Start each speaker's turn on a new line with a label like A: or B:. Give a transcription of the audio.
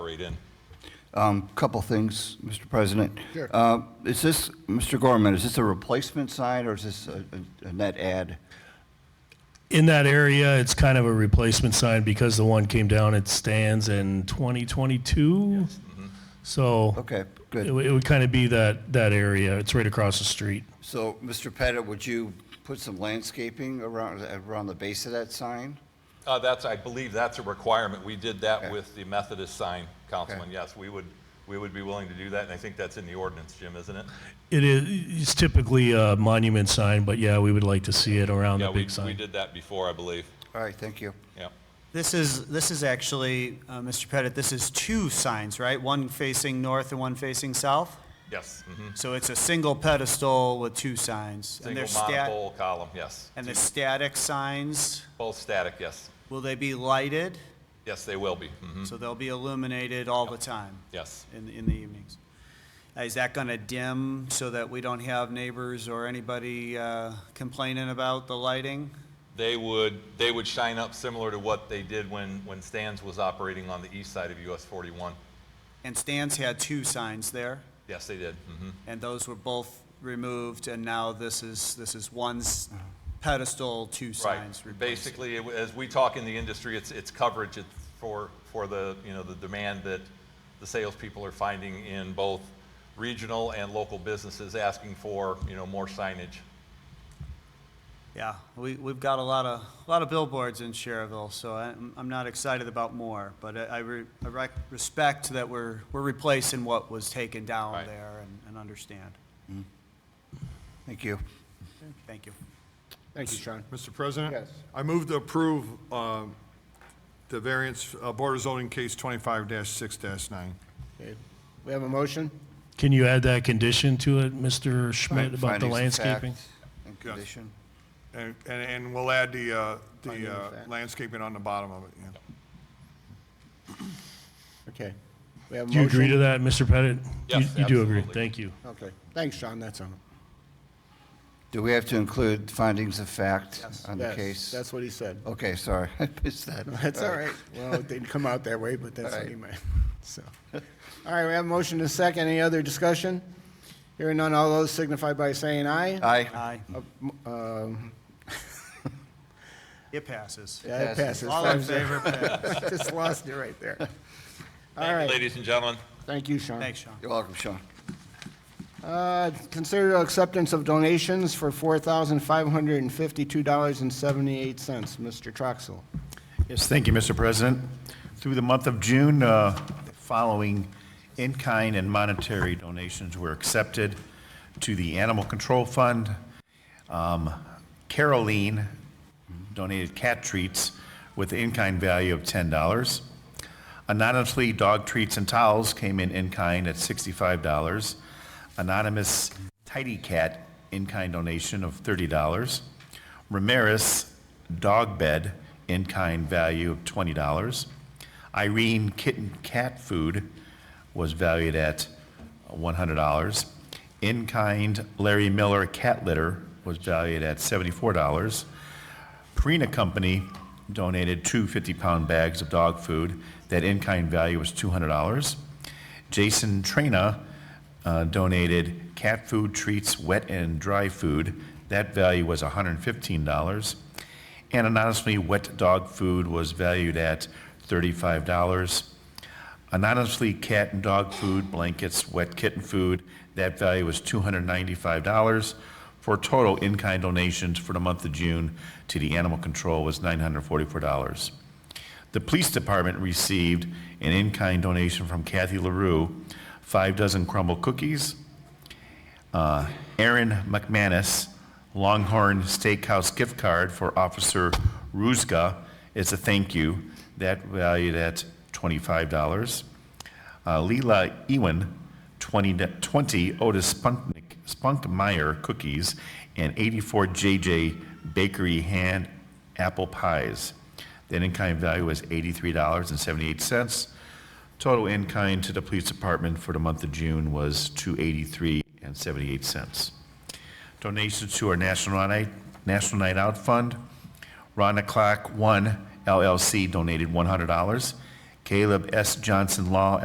A: in.
B: Um, Couple things, Mr. President.
C: Sure.
B: Uh, Is this, Mr. Gorman, is this a replacement sign or is this a a- a net add?
D: In that area, it's kind of a replacement sign because the one came down, it stands in 2022. So.
B: Okay,
D: It
B: good.
D: would, it would kind of be that, that area. It's right across the street.
B: So, Mr. Pettit, would you put some landscaping around, around the base of that sign?
A: Uh, That's, I believe that's a requirement. We did that
B: Okay.
A: with the Methodist sign, Councilman. Yes, we would, we would be willing to do that, and I think that's in the ordinance, Jim, isn't it?
D: It is, it's typically a monument sign, but yeah, we would like to see it around
A: Yeah,
D: the
A: we,
D: big
A: we
D: sign.
A: did that before, I believe.
B: All right, thank you.
A: Yeah.
E: This is, this is actually, uh, Mr. Pettit, this is two signs, right? One facing north and one facing south?
A: Yes. mhm.
E: So it's a single pedestal with two signs. and they're
A: Single
E: stat-
A: monopole column, yes.
E: And the static signs,
A: Both static, yes.
E: will they be lighted?
A: Yes, they will be. mhm.
E: So they'll be illuminated all the time
A: Yes.
E: in, in the evenings? Uh, Is that going to dim so that we don't have neighbors or anybody uh, complaining about the lighting?
A: They would, they would shine up similar to what they did when, when Stans was operating on the east side of US 41.
E: And Stan's had two signs there?
A: Yes, they did. mhm.
E: And those were both removed, and now this is, this is one s- pedestal, two signs
A: Right.
E: replaced.
A: Basically, it- as we talk in the industry, it's, it's coverage it's for, for the, you know, the demand that the salespeople are finding in both regional and local businesses asking for, you know, more signage.
E: Yeah, we, we've got a lot of, a lot of billboards in Sherrville, so I'm, I'm not excited about more, but I, I re- I rec- respect that we're, we're replacing what was taken down
A: Right.
E: there and, and understand.
B: Thank you.
E: Thank you.
C: Thank you, Sean.
F: Mr. President?
C: Yes.
F: I move to approve um, the variance, uh, Board of Zoning Case 25-6-9.
C: Okay. We have a motion?
D: Can you add that condition to it, Mr. Schmidt, about the
B: Findings of fact
D: landscaping?
B: And condition.
F: And, and- and we'll add the, uh,
C: Finding
F: the
C: of
F: uh,
C: fact.
F: landscaping on the bottom of it, yeah.
C: Okay. We have a
D: Do you agree to
C: motion?
D: that, Mr. Pettit? You-
A: Yes,
D: You do agree.
A: absolutely.
D: Thank you.
C: Okay. Thanks, Sean, that's on.
B: Do we have to include findings of fact on the
C: Yes,
B: case? Oh.
C: That's what he said.
B: Okay, sorry, I missed that.
C: That's all right. Well, it didn't come out that way, but that's what
B: right.
C: he meant, so. All right, we have a motion to second. Any other discussion? Hearing none, all those signify by saying aye.
B: Aye,
E: Aye.
C: Uh, Um,
E: It passes.
C: Yeah, it
B: Passes.
C: passes.
E: All in
C: Five zero.
E: favor, pass.
C: Just lost it right there. All
A: Thank you,
C: right,
A: Ladies and gentlemen,
C: thank you, Sean.
E: Thanks, Sean.
B: you're welcome, Sean.
C: Uh, Consider acceptance of donations for $4,552.78. Mr. Troxel.
G: Yes, thank you, Mr. President. Through the month of June, uh, the following in-kind and monetary donations were accepted to the Animal Control Fund. Um, Caroline donated cat treats with an in-kind value of $10. Anonymously, dog treats and towels came in in-kind at $65. Anonymous Tidy Cat in-kind donation of $30. Ramirez Dog Bed in-kind value of $20. Irene Kitten Cat Food was valued at $100. In-kind Larry Miller Cat Litter was valued at $74. Perina Company donated two 50-pound bags of dog food. That in-kind value was $200. Jason Trina uh, donated cat food treats, wet and dry food. That value was $115. And anonymously, wet dog food was valued at $35. Anonymously, cat and dog food, blankets, wet kitten food, that value was $295, for total in-kind donations for the month of June to the animal control was $944. The police department received an in-kind donation from Kathy LaRue, five dozen crumble cookies, uh, Aaron McManus Longhorn Steakhouse gift card for Officer Ruzga. It's a thank you. That valued at $25. Uh, Leela Ewan, 20, d- 20 Otis Spunknik, Spunkmeyer cookies and 84 JJ Bakery hand apple pies. The in-kind value was $83.78. Total in-kind to the police department for the month of June was two eighty-three and seventy-eight cents. Donations to our National Night, National Night Out Fund. Ron O'Clock One LLC donated one hundred dollars. Caleb S. Johnson Law